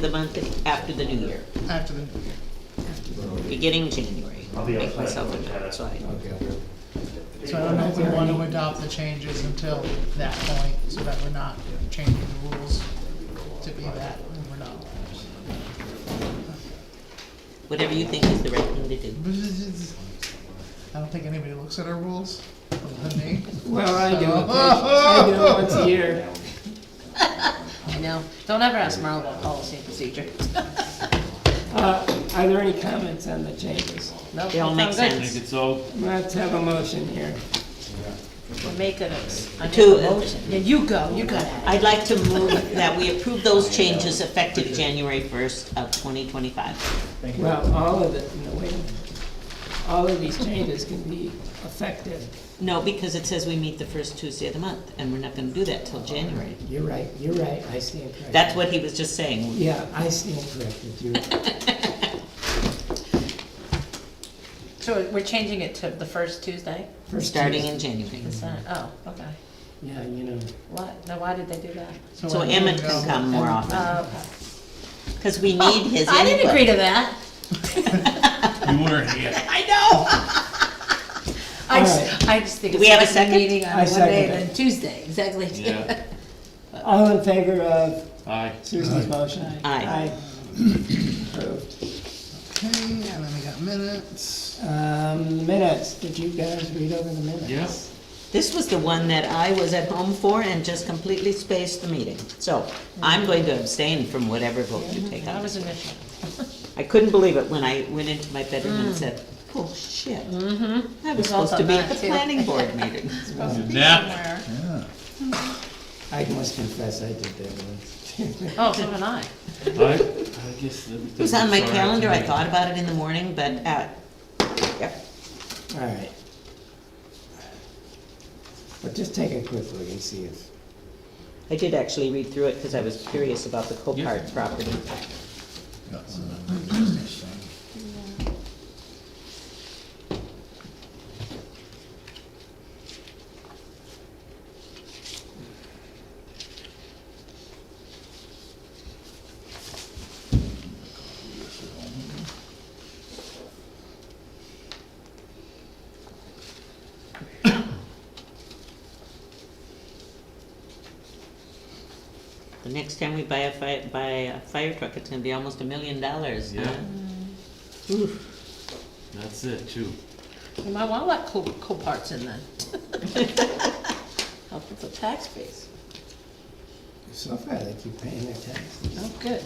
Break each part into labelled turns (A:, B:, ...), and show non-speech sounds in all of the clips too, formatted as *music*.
A: the month after the new year,
B: After the,
A: beginning January.
C: I'll be
A: Make
C: outside.
A: myself outside.
B: so I don't know if we want to adopt the changes until that point, so that we're not changing the rules to be that, and we're not.
A: Whatever you think is the right thing to do.
B: I don't think anybody looks at our rules, other than me.
D: Well, I do it,
B: *laughs*
D: once- I do it once a year.
E: I know. Don't ever ask Marla about policy and procedure.
D: Uh, Are there any comments on the changes?
E: No,
A: They all make sense.
F: It's all
D: Let's have a motion here.
E: We're making it. I make
A: Two.
E: a motion. Yeah, you go, you got it.
A: I'd like to move that we approve those changes effective January first of twenty twenty-five.
D: Well, all of it, no, wait. a minute. All of these changes can be effective.
A: No, because it says we meet the first Tuesday of the month, and we're not gonna do that till January.
D: You're right, you're right, I stand corrected.
A: That's what he was just saying.
D: Yeah, I stand corrected, you're right.
E: So we're changing it to the first Tuesday?
A: We're
D: First
A: starting
D: Tuesday.
A: in January.
E: It's not- Oh, okay.
D: Yeah, you know,
E: What? Now, why did they do that?
A: So
B: I'm
A: Emmett
B: gonna
A: can
B: go-
A: come more often,
E: Oh, okay.
A: because we need his input.
E: Oh, *laughs* I didn't agree to that.
F: you were here.
A: *laughs*
E: I *laughs* know. I
D: All
E: just, I just think.
A: Do we have a
E: it's better
A: second?
E: Meeting on
D: I second
E: Monday
D: it.
E: than Tuesday, exactly. *laughs*
F: Yeah.
D: All in favor of
F: Aye.
D: Susan's motion?
A: Aye.
D: Approved.
B: Okay, and then we got minutes.
D: Um, minutes, did you guys read over the minutes?
F: Yes.
A: This was the one that I was at home for and just completely spaced the meeting. So I'm going to abstain from whatever vote you take
E: That
A: on
E: was
A: this.
E: initial.
A: I couldn't believe it when I went into my bedroom and said, oh shit. I was
E: Results
A: supposed to
E: on
A: be at the
E: that, too.
A: planning board
E: *laughs*
A: meeting.
F: Nap.
D: I must confess, I did that once.
E: Oh, so did I.
F: I, I guess. It
A: It was on my calendar, I thought about it in the morning, but, uh, yep.
D: All right. But just take a quick look and see if,
A: I did actually read through it because I was curious about the Copart property. The next time we buy a fi, buy a fire truck, it's gonna be almost a million dollars, huh?
F: Yeah. That's it, too.
E: You might want to let cool, cool parts in then. *laughs* Help with the tax base.
D: so far they keep paying their taxes.
E: Oh, good.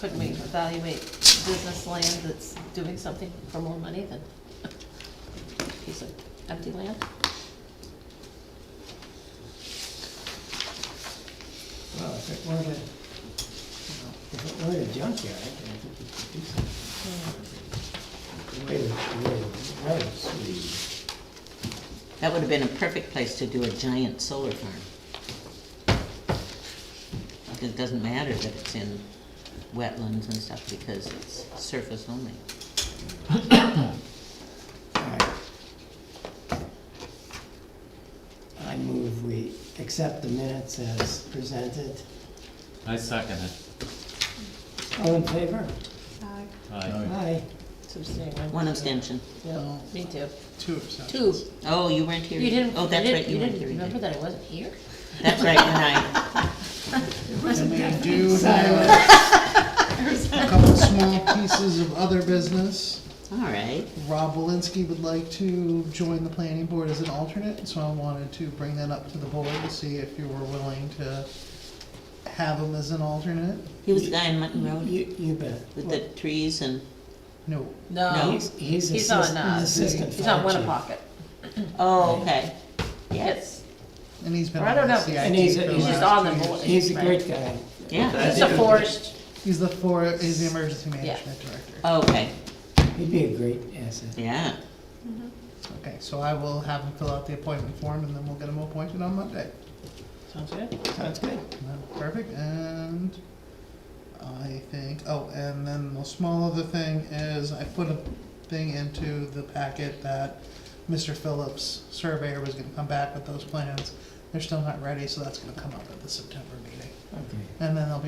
E: Couldn't we evaluate business land that's doing something for more money than a piece of empty land?
D: Well, if it were to, you know, if it were a junkyard, I think you could do something. The way the- the way the roads lead.
A: That would have been a perfect place to do a giant solar farm. It doesn't matter that it's in wetlands and stuff because it's surface only.
D: All right. I move we accept the minutes as presented.
F: I second it.
D: All in favor?
F: Aye.
D: Aye.
E: Substantial.
A: One abstention.
E: Yeah, me too.
B: Two abstentions.
E: Two.
A: Oh, you weren't here.
E: You didn't,
A: Oh,
E: you
A: that's right,
E: didn't,
A: you
E: you
A: weren't here.
E: didn't,
A: either.
E: remember that I wasn't
A: *laughs*
E: here?
A: That's right, and
E: *laughs*
A: I,
B: And we do have a couple small pieces of other business.
A: all right.
B: Rob Walensky would like to join the planning board as an alternate, so I wanted to bring that up to the board to see if you were willing to have him as an alternate.
A: He was the guy in Mutton Road
D: You, you bet.
A: with the trees and,
B: No,
E: No,
D: He's, he's
E: he's on,
D: assistant,
E: uh,
D: he's assistant.
E: he's on
D: fire chief.
E: Winnapocket.
A: oh, okay. Yes,
B: and he's been
E: I
B: on
E: don't
B: the
E: know.
B: CIT
D: And he's a-
B: for the
D: he's
B: last
D: just
E: on the
B: two years.
E: board.
D: He's a great guy.
A: yeah,
E: He's a forest,
B: He's the for, he's the emergency management director.
A: Oh, okay,
D: He'd be a great asset.
A: yeah.
B: Okay, so I will have him fill out the appointment form and then we'll get him appointed on Monday.
E: sounds good.
D: Sounds good.
B: Perfect, and I think, oh, and then the small other thing is I put a thing into the packet that Mr. Phillips surveyor was gonna come back with those plans. They're still not ready, so that's gonna come up at the September meeting.
D: Okay.
B: And then they'll be